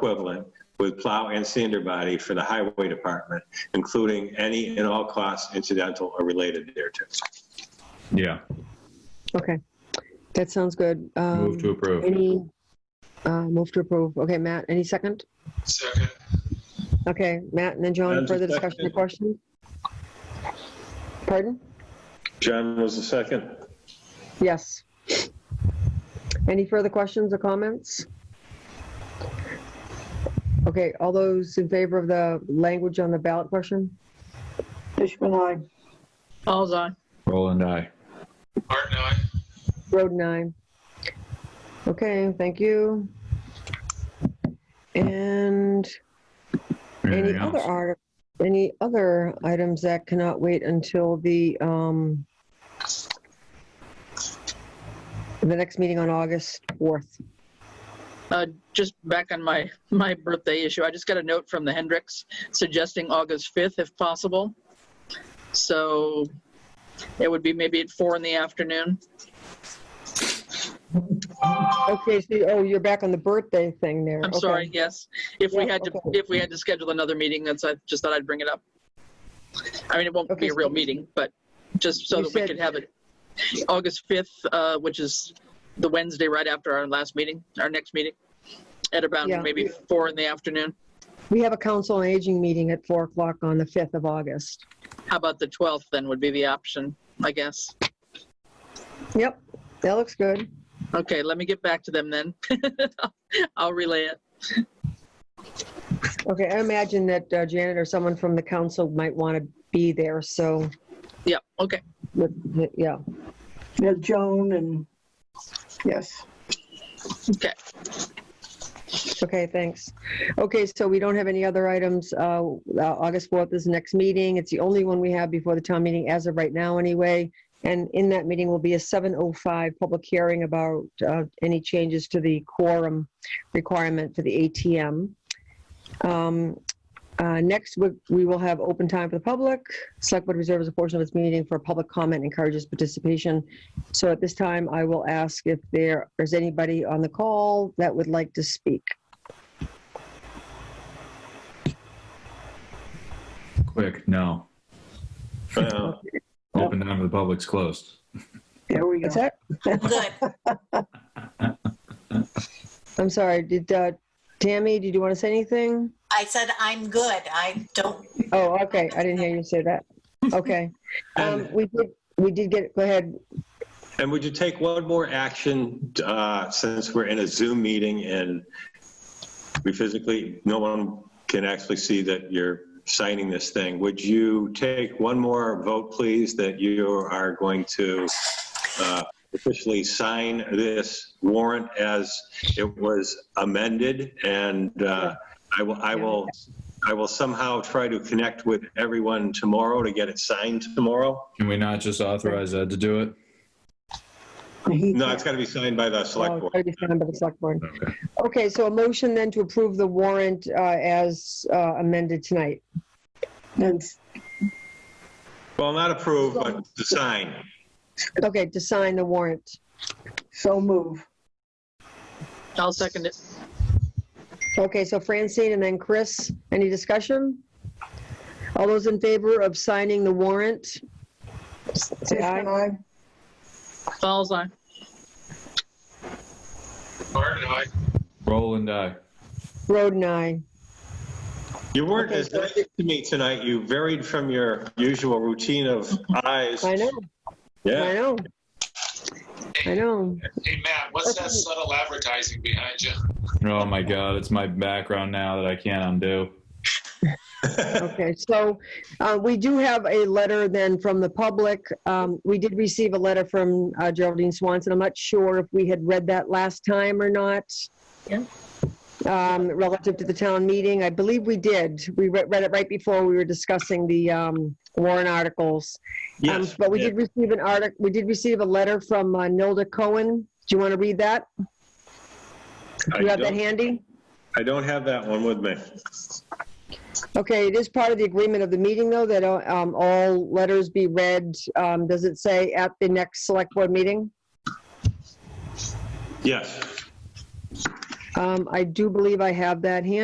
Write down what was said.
equivalent with plow and sander body for the highway department, including any and all costs incidental or related thereto. Yeah, Okay, that sounds good. Um, move to approve. Any, uh, move to approve. Okay, Matt, any second? Second. Okay, Matt and then John, John's further a discussion or second. question? Pardon? John was the second. Yes. Any further questions or comments? Okay, all those in favor of the language on the ballot question? Fishman, aye. Falls on. Roland, aye. Martin, aye. Road nine. Okay, thank you. And Anything Any other else? art, any other items that cannot wait until the, um, the next meeting on August 4th? Uh, just back on my, my birthday issue, I just got a note from the Hendricks suggesting August 5th if possible. So it would be maybe at four in the afternoon. Okay, so, oh, you're back on the birthday thing there. I'm Okay. sorry, yes. If we Yeah, had to, okay. if we had to schedule another meeting, that's, I just thought I'd bring it up. I mean, it won't Okay, be a so- real meeting, but just so You that we said- could have it. August 5th, uh, which is the Wednesday right after our last meeting, our next meeting, at around Yeah. maybe four in the afternoon. We have a council on aging meeting at 4 o'clock on the 5th of August. How about the 12th then would be the option, I guess. Yep, that looks good. Okay, let me get back to them then. I'll relay it. Okay, I imagine that uh, Janet or someone from the council might want to be there, so, Yeah, okay. yeah. Yeah, Joan and, yes. Okay, thanks. Okay, so we don't have any other items. Uh, uh, August 4th is the next meeting. It's the only one we have before the town meeting as of right now, anyway. And in that meeting will be a 7:05 public hearing about uh, any changes to the quorum requirement for the ATM. Um, uh, Next, we- we will have open time for the public. Select Board reserves a portion of its meeting for public comment, encourages participation. So at this time, I will ask if there is anybody on the call that would like to speak. Quick, no. Uh, Oh. Open down to the public's closed. There we What's go. that? Good. I'm sorry, did, uh, Tammy, did you want to say anything? I said I'm good. I don't, Oh, okay, I didn't hear you say that. Okay. Um, we did, we did get, go ahead. And would you take one more action, uh, since we're in a Zoom meeting and we physically, no one can actually see that you're signing this thing? Would you take one more vote, please, that you are going to uh, officially sign this warrant as it was amended? And uh, I will, I will, I will somehow try to connect with everyone tomorrow to get it signed tomorrow. Can we not just authorize Ed to do it? He- No, it's got to be signed by the select Oh, board. it's gotta be signed by the select board. Okay. Okay, so a motion then to approve the warrant, uh, as uh, amended tonight. And Well, not approved, but the sign. Okay, to sign the warrant. so move. I'll second it. Okay, so Francine and then Chris, any discussion? All those in favor of signing the warrant? Say aye. Fishman, aye. Falls on. Martin, aye. Roland, aye. Roden, aye. You weren't Okay, as so I nice to me tonight. You varied from your usual routine of eyes. I know, Um, I Yeah, know. I know. Hey, Matt, what's that subtle advertising behind you? Oh my God, it's my background now that I can't undo. Okay, so uh, we do have a letter then from the public. Um, We did receive a letter from uh, Geraldine Swanson. I'm not sure if we had read that last time or not. Yeah. Um, Relative to the town meeting, I believe we did. We re- read it right before we were discussing the um, warrant articles. Um, yes. But we did receive an article, we did receive a letter from uh, Nilda Cohen. Do you want to read that? Do you I have that don't, handy? I don't have that one with me. Okay, it is part of the agreement of the meeting, though, that um, all letters be read, um, does it say at the next select board meeting? Yes. Um, I do believe I have that handy.